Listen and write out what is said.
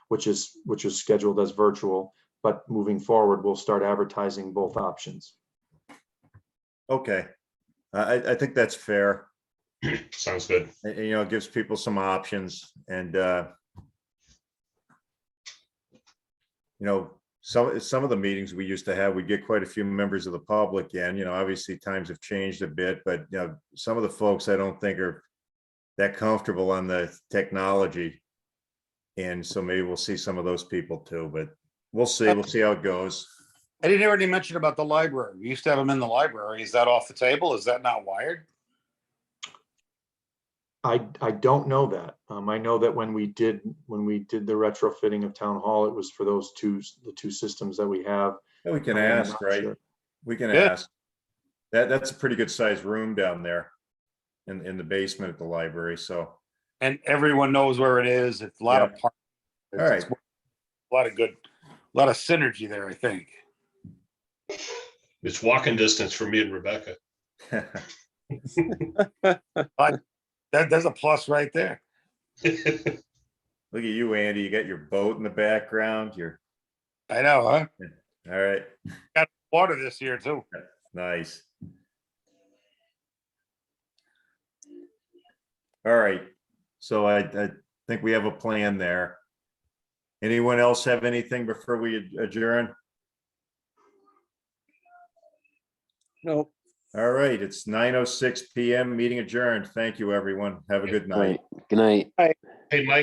which is, which is scheduled as virtual. But moving forward, we'll start advertising both options. Okay, I, I- I think that's fair. Sounds good. And, You know, it gives people some options and, uh, you know, some, some of the meetings we used to have, we'd get quite a few members of the public and, you know, obviously times have changed a bit, but, you know, some of the folks I don't think are that comfortable on the technology. And so maybe we'll see some of those people too, but we'll see, we'll see how it goes. I didn't hear any mention about the library. We used to have them in the library. Is that off the table? Is that not wired? I, I don't know that. Um, I know that when we did, when we did the retrofitting of town hall, it was for those two, s- the two systems that we have. We can I'm ask, not right? sure. We can Yeah. ask. That, that's a pretty good sized room down there in, in the basement at the library, so. And everyone knows where it is. It's a lot of. par- All right. A lot of good, a lot of synergy there, I think. It's walking distance for me and Rebecca. That, that's a plus right there. It's Look at you, Andy, you got your boat in the background, you're, I know, huh? all right, Water this year too. nice. All right, so I, I think we have a plan there. Anyone else have anything before we adjourn? No, All right, it's nine oh six PM, meeting adjourned. Thank you, everyone. Have a good night. Good night. Hey, Mike,